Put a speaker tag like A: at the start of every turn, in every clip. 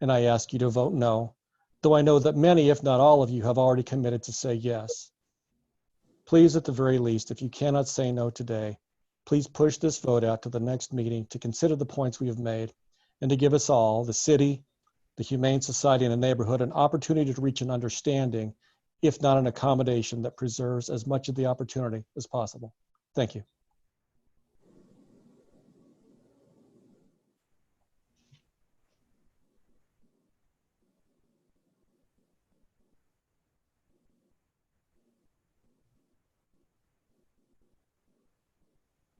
A: and I ask you to vote no, though I know that many, if not all of you, have already committed to say yes. Please, at the very least, if you cannot say no today, please push this vote out to the next meeting to consider the points we have made and to give us all, the city, the Humane Society, and the neighborhood, an opportunity to reach an understanding, if not an accommodation, that preserves as much of the opportunity as possible. Thank you.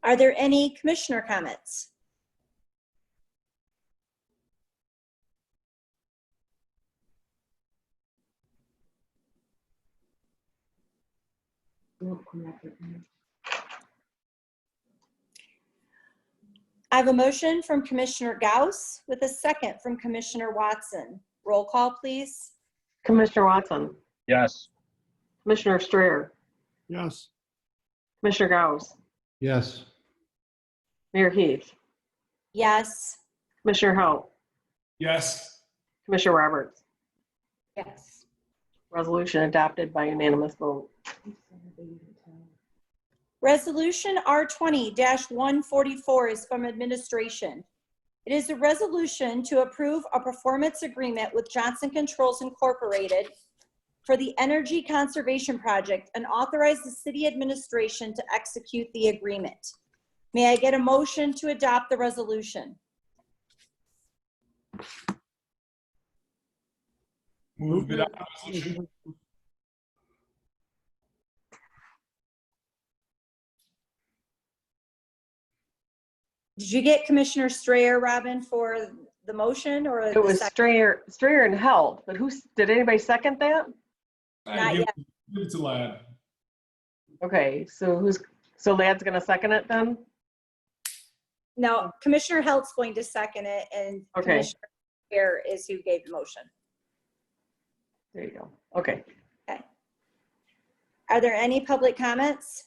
B: Are there any commissioner comments? I have a motion from Commissioner Gauss with a second from Commissioner Watson. Roll call, please.
C: Commissioner Watson,
D: Yes.
C: Commissioner Strayer,
E: Yes.
C: Commissioner Gauss,
E: Yes.
C: Mayor Heath,
B: Yes.
C: Commissioner Halt,
E: Yes.
C: Commissioner Roberts.
B: Yes.
C: Resolution adopted by unanimous vote.
B: Resolution R twenty one forty-four is from administration. It is a resolution to approve a performance agreement with Johnson Controls Incorporated for the Energy Conservation Project and authorize the city administration to execute the agreement. May I get a motion to adopt the resolution?
E: Move to adopt resolution.
B: Did you get Commissioner Strayer, Robin, for the motion or?
C: It was
B: the sec-
C: Strayer, Strayer and Halt, but who's, did anybody second that?
B: Not
E: I give give it to Lad.
C: Okay, so who's, so Lad's gonna second it then?
B: No, Commissioner Helt's going to second it and
C: Okay.
B: Commissioner Strayer is who gave the motion.
C: There you go. Okay.
B: Are there any public comments?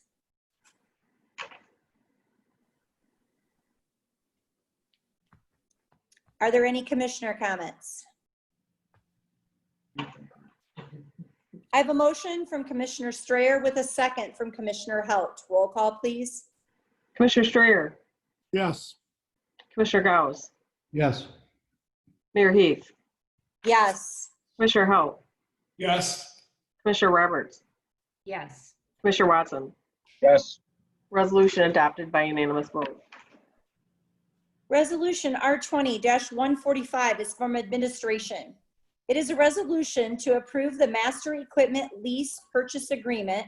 B: Are there any commissioner comments? I have a motion from Commissioner Strayer with a second from Commissioner Halt. Roll call, please.
C: Commissioner Strayer,
E: Yes.
C: Commissioner Gauss,
E: Yes.
C: Mayor Heath,
B: Yes.
C: Commissioner Halt,
E: Yes.
C: Commissioner Roberts,
F: Yes.
C: Commissioner Watson.
D: Yes.
C: Resolution adopted by unanimous vote.
B: Resolution R twenty one forty-five is from administration. It is a resolution to approve the master equipment lease purchase agreement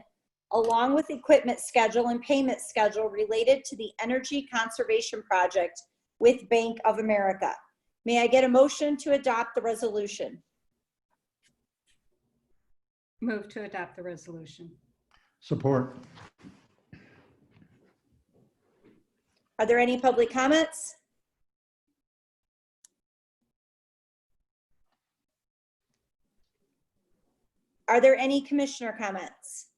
B: along with equipment schedule and payment schedule related to the energy conservation project with Bank of America. May I get a motion to adopt the resolution?
F: Move to adopt the resolution.
E: Support.
B: Are there any public comments? Are there any commissioner comments?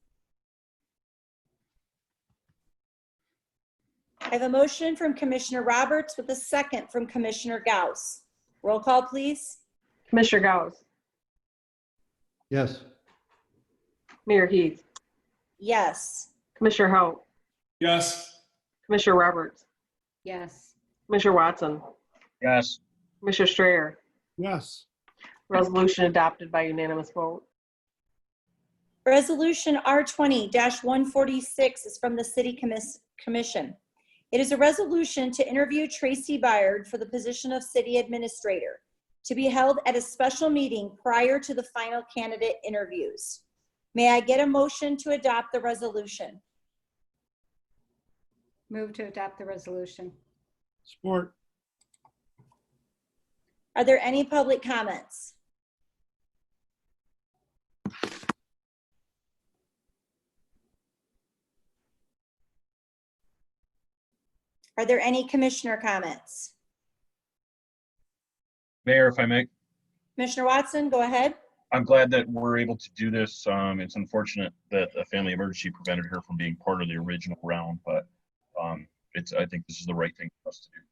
B: I have a motion from Commissioner Roberts with a second from Commissioner Gauss. Roll call, please.
C: Commissioner Gauss,
E: Yes.
C: Mayor Heath,
B: Yes.
C: Commissioner Halt,
E: Yes.
C: Commissioner Roberts,
F: Yes.
C: Commissioner Watson,
D: Yes.
C: Commissioner Strayer.
E: Yes.
C: Resolution adopted by unanimous vote.
B: Resolution R twenty one forty-six is from the City Commis- Commission. It is a resolution to interview Tracy Byard for the position of City Administrator, to be held at a special meeting prior to the final candidate interviews. May I get a motion to adopt the resolution?
F: Move to adopt the resolution.
E: Support.
B: Are there any public comments? Are there any commissioner comments?
D: Mayor, if I may,
B: Commissioner Watson, go ahead.
D: I'm glad that we're able to do this. Um, it's unfortunate that a family emergency prevented her from being part of the original round, but, um, it's, I think this is the right thing for us to do.